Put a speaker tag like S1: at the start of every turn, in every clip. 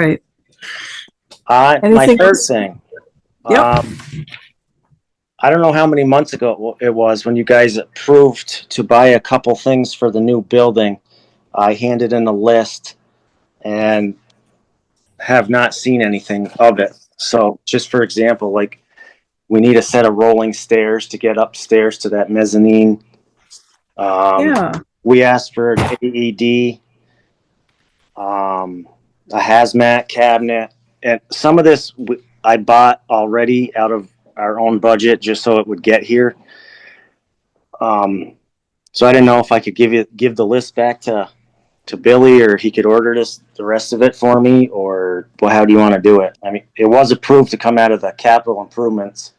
S1: Right.
S2: Uh, my
S1: Anything
S2: third
S1: else?
S2: thing.
S1: Yep.
S2: Um, I don't know how many months ago it wa- it was when you guys approved to buy a couple things for the new building. I handed in a list and have not seen anything of it. So just for example, like we need a set of rolling stairs to get upstairs to that mezzanine. Um,
S1: Yeah,
S2: we asked for an AED, um, a hazmat cabinet, and some of this w- I bought already out of our own budget just so it would get here. Um, so I didn't know if I could give you give the list back to to Billy or he could order this the rest of it for me or well how do you want to do it? I mean it was approved to come out of the capital improvements.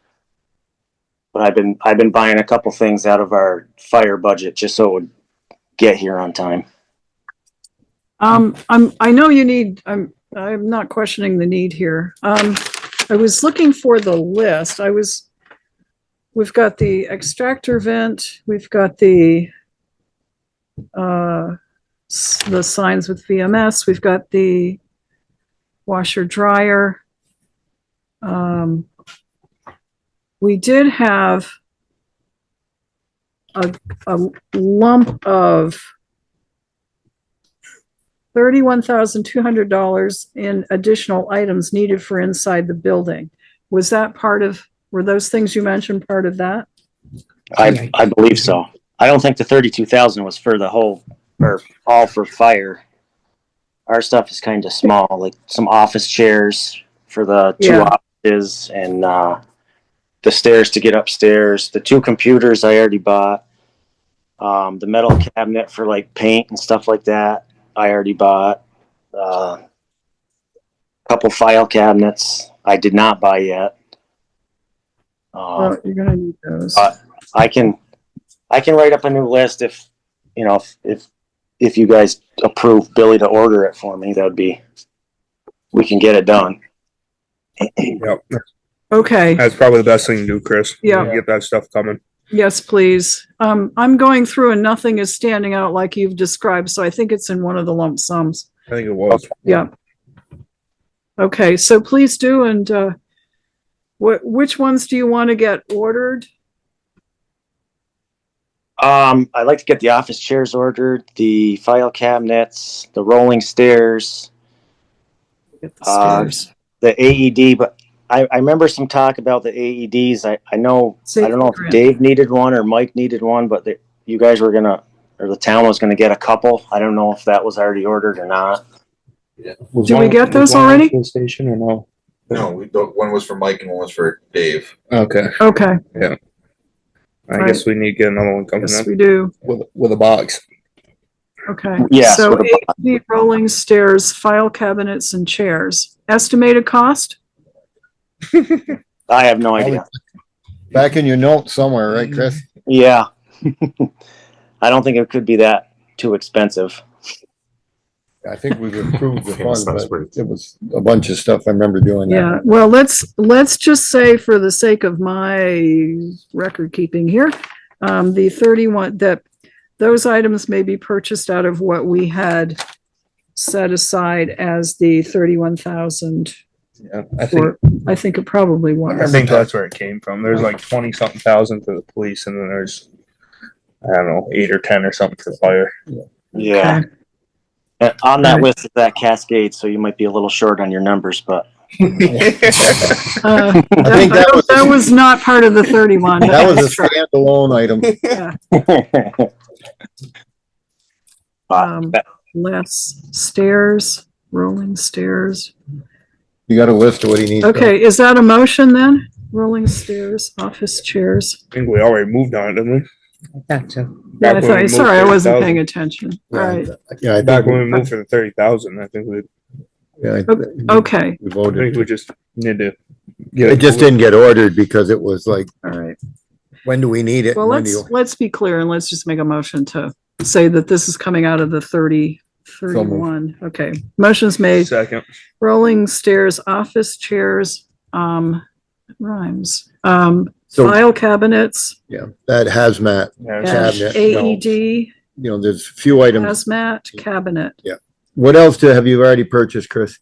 S2: But I've been I've been buying a couple things out of our fire budget just so it would get here on time.
S1: um, I'm, I know you need, I'm, I'm not questioning the need here. Um, I was looking for the list. I was, we've got the extractor vent, we've got the, uh, s- the signs with VMS, we've got the washer dryer. Um, we did have a, a lump of thirty-one thousand two hundred dollars in additional items needed for inside the building. Was that part of, were those things you mentioned part of that?
S2: I,
S3: Right.
S2: I believe so. I don't think the thirty-two thousand was for the whole, or all for fire. Our stuff is kind of small, like some office chairs for the two
S1: Yeah.
S2: offices and, uh, the stairs to get upstairs, the two computers I already bought. Um, the metal cabinet for like paint and stuff like that, I already bought. Uh, Couple file cabinets I did not buy yet. Um,
S1: Oh, you're gonna need those.
S2: Uh, I can, I can write up a new list if, you know, if- if, if you guys approve Billy to order it for me, that would be, we can get it done.
S3: Yep,
S1: Okay,
S2: uh,
S3: that's probably the best thing to do, Chris.
S1: Yeah.
S3: Get that stuff coming.
S1: yes, please. Um, I'm going through and nothing is standing out like you've described, so I think it's in one of the lump sums.
S3: I think it was.
S1: Yeah. Okay, so please do and, uh, wh- which ones do you want to get ordered?
S2: Um, I'd like to get the office chairs ordered, the file cabinets, the rolling stairs,
S1: Get the
S2: Uh,
S1: stairs.
S2: the AED, but I, I remember some talk about the AEDs. I, I know, I don't
S1: Safety
S2: know if
S1: grant.
S2: Dave needed one or Mike needed one, but the, you guys were gonna, or the town was gonna get a couple. I don't know if that was already ordered or not.
S4: Was
S1: Did we
S4: one-
S1: get
S4: was
S1: those
S4: one
S1: already?
S4: fuel Station or no?
S5: No, we, the- one was for Mike and one was for Dave.
S4: Okay.
S1: Okay,
S3: I guess we need to get another one coming
S2: Mm-hmm.
S1: yes,
S3: up
S1: we do.
S4: With, with a box.
S1: Okay.
S2: Yes,
S1: So
S2: with
S1: eight feet rolling stairs, file cabinets and chairs. Estimated cost?
S2: I have no idea.
S6: back in your notes somewhere, right, Chris?
S3: Mm-hmm.
S2: Yeah. I don't think it could be that too expensive.
S6: I think we've approved the
S7: Yeah,
S6: fund,
S7: sounds
S6: but
S7: pretty-
S6: it was a bunch of stuff. I remember doing that.
S1: Yeah, well, let's, let's just say for the sake of my record keeping here, um, the thirty-one, that those items may be purchased out of what we had set aside as the thirty-one thousand,
S3: Yeah, I think,
S1: or I think it probably
S3: I
S1: was.
S3: think that's where it came from. There's like twenty something thousand for the police and then there's, I don't know, eight or ten or something for fire.
S2: Yeah.
S1: Okay.
S2: And on that
S1: Right.
S2: list is that Cascade, so you might be a little short on your numbers, but
S1: Uh,
S6: I think that was,
S1: That was not part of the thirty-one.
S6: that was a standalone item.
S2: But
S1: Um, less stairs, rolling stairs.
S6: You got a list of what he needs.
S1: Okay, is that a motion then? Rolling stairs, office chairs.
S3: I think we already moved on, it, didn't we?
S1: Yeah, I
S3: Back when we
S1: thought,
S3: moved
S1: sorry, I
S3: for the
S1: wasn't
S3: 30,000.
S1: paying attention. All right,
S6: Yeah, I
S3: Back when
S6: think,
S3: we moved for the thirty thousand, I think we, I
S6: yeah, I think
S1: okay,
S3: think we
S6: we voted.
S3: just need to. get
S6: It just didn't get ordered because it was like,
S1: all right.
S6: when do we need it?
S1: Well,
S6: When do
S1: let's,
S6: you-
S1: let's be clear and let's just make a motion to say that this is coming out of the 30, 31. Okay, motion's made.
S3: Second.
S1: Rolling stairs, office chairs, um, rhymes, um,
S6: So,
S1: file cabinets,
S6: yeah, that hazmat,
S3: Yeah, so-
S1: dash
S6: Cabinet, no.
S1: AED,
S6: you know, there's a few items.
S1: hazmat, cabinet.
S6: What else do, have you already purchased, Chris?